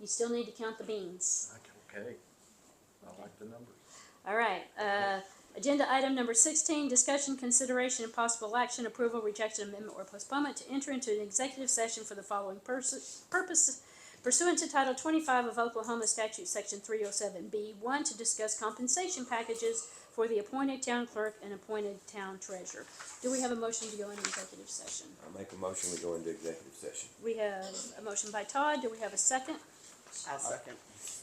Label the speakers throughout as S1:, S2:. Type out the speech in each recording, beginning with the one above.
S1: You still need to count the beans.
S2: Okay, I like the numbers.
S1: All right, uh, agenda item number sixteen, discussion, consideration, and possible action, approval, rejection, amendment, or postponement to enter into an executive session for the following pers- purpose pursuant to Title twenty-five of Oklahoma Statute, Section three oh seven B, one, to discuss compensation packages for the appointed town clerk and appointed town treasurer. Do we have a motion to go into executive session?
S3: I make a motion, we go into executive session.
S1: We have a motion by Todd, do we have a second?
S4: I'll second.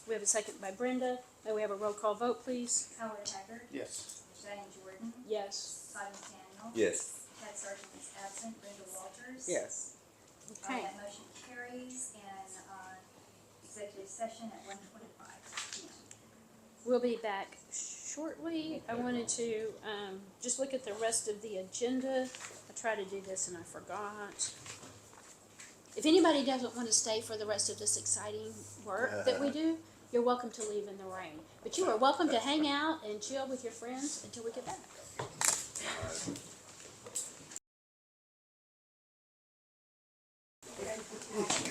S1: We have a second by Brenda, may we have a roll call vote, please?
S5: Howard Haggard.
S4: Yes.
S5: Diane Jordan.
S1: Yes.
S5: Todd McDaniel.
S3: Yes.
S5: Ted Sargent is absent. Brenda Walters.
S4: Yes.
S5: Uh,
S1: Okay.
S5: that motion carries and, uh, executive session at one twenty-five P M.
S1: We'll be back shortly. I wanted to um, just look at the rest of the agenda. I tried to do this and I forgot. If anybody doesn't want to stay for the rest of this exciting work that we do, you're welcome to leave in the rain. But you are welcome to hang out and chill with your friends until we get back.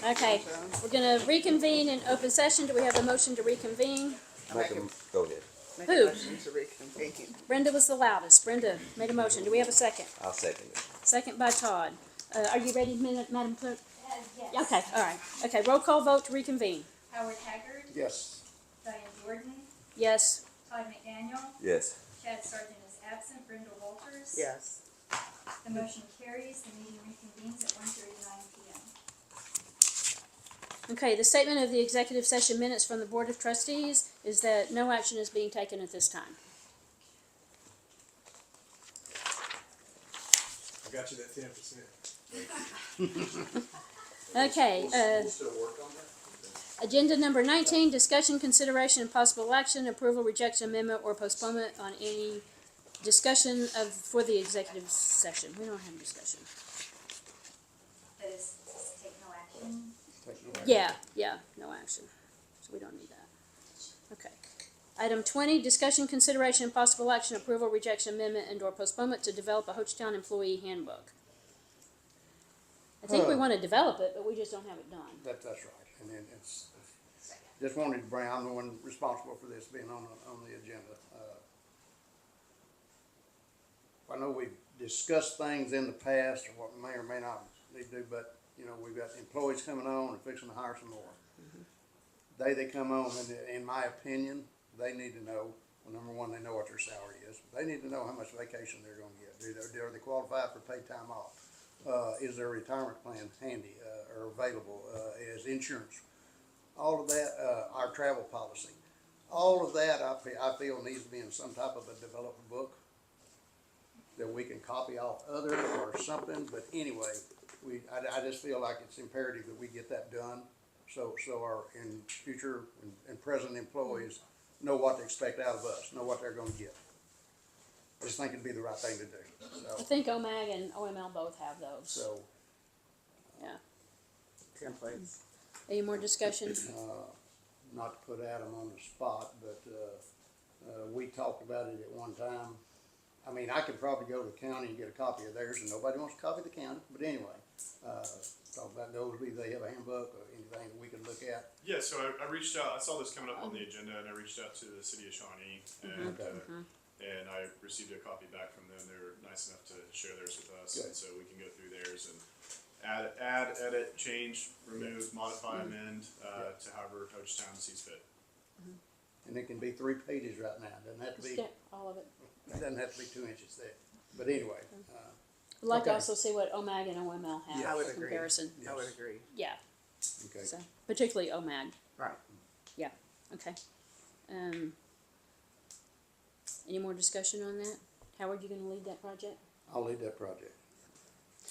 S1: Okay, we're gonna reconvene in open session. Do we have a motion to reconvene?
S4: I
S3: Make
S4: make
S3: a,
S4: a,
S3: go ahead.
S4: make
S1: Who?
S4: a motion to reconvene.
S1: Brenda was the loudest. Brenda made a motion. Do we have a second?
S3: I'll second it.
S1: Second by Todd. Uh, are you ready, Min- Madam Clerk?
S5: Uh, yes.
S1: Okay, all right. Okay, roll call vote to reconvene.
S5: Howard Haggard.
S4: Yes.
S5: Diane Jordan.
S1: Yes.
S5: Todd McDaniel.
S3: Yes.
S5: Chad Sargent is absent. Brenda Walters.
S4: Yes.
S5: The motion carries. The meeting reconvenes at one thirty-nine P M.
S1: Okay, the statement of the executive session minutes from the Board of Trustees is that no action is being taken at this time.
S6: I got you that ten percent.
S1: Okay, uh,
S6: We'll still work on that?
S1: agenda number nineteen, discussion, consideration, and possible action, approval, rejection, amendment, or postponement on any discussion of, for the executive session. We don't have a discussion.
S5: That is, take no action.
S1: Yeah, yeah, no action. So we don't need that. Okay. Item twenty, discussion, consideration, and possible action, approval, rejection, amendment, and or postponement to develop a Hochtown employee handbook. I think we
S7: Huh.
S1: wanna develop it, but we just don't have it done.
S7: That, that's right, and then it's, just wanted to bring, I'm the one responsible for this being on, the- on the agenda. Uh, I know we've discussed things in the past, or what may or may not need to do, but, you know, we've got employees coming on and fixing to hire some more. They, they come on, and in my opinion, they need to know, well, number one, they know what their salary is. They need to know how much vacation they're gonna get, do they, are they qualified for paid time off? uh, is their retirement plan handy, uh, or available, uh, is insurance, all of that, uh, our travel policy. All of that, I feel, I feel needs to be in some type of a developed book that we can copy off other or something, but anyway, we, I, I just feel like it's imperative that we get that done. So, so our, in future and, and present employees know what to expect out of us, know what they're gonna get. Just think it'd be the right thing to do,
S1: I
S7: so,
S1: think OMAG and OML both have those.
S7: so.
S1: Yeah.
S4: Templates.
S1: Any more discussion?
S4: Uh,
S7: not to put Adam on the spot, but, uh, uh, we talked about it at one time. I mean, I could probably go to the county and get a copy of theirs, and nobody wants to copy of the county, but anyway, uh, talk about those, do they have a handbook or anything that we could look at?
S6: Yeah, so I, I reached out, I saw this coming up on the agenda and I reached out to the city of Shawnee and,
S7: Mhm.
S6: uh, and I received a copy back from them. They were nice enough to share theirs with us. And
S7: Good.
S6: so we can go through theirs and add, add, edit, change, remove, modify, amend, uh, to however Hochtown sees fit.
S7: And it can be three pages right now, doesn't have to be,
S1: Skip All of it.
S7: doesn't have to be two inches thick, but anyway, uh,
S1: I'd like to
S7: Okay.
S1: also see what OMAG and OML have.
S4: Yeah, I would
S1: for
S4: agree.
S1: Comparison,
S4: I would agree.
S1: yeah,
S7: okay.
S1: so, particularly OMAG.
S4: Right.
S1: Yeah, okay. Um, any more discussion on that? Howard, you gonna lead that project?
S7: I'll leave that project.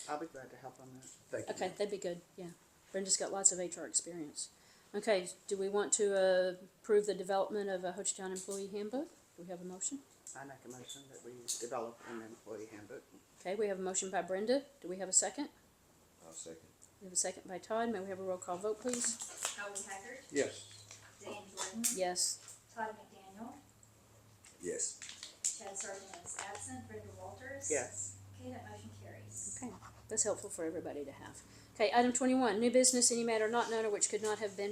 S4: I'll be glad to help on that.
S7: Thank you.
S1: Okay, that'd be good, yeah. Brenda's got lots of HR experience. Okay, do we want to, uh, approve the development of a Hochtown employee handbook? Do we have a motion?
S4: I make a motion that we develop an employee handbook.
S1: Okay, we have a motion by Brenda. Do we have a second?
S3: I'll second.
S1: We have a second by Todd. May we have a roll call vote, please?
S5: Howard Haggard.
S7: Yes,
S5: Diane Jordan.
S1: Yes.
S5: Todd McDaniel.
S3: Yes.
S5: Chad Sargent is absent. Brenda Walters.
S4: Yes.
S5: Okay, that motion carries.
S1: Okay, that's helpful for everybody to have. Okay, item twenty-one, new business, any matter not known or which could not have been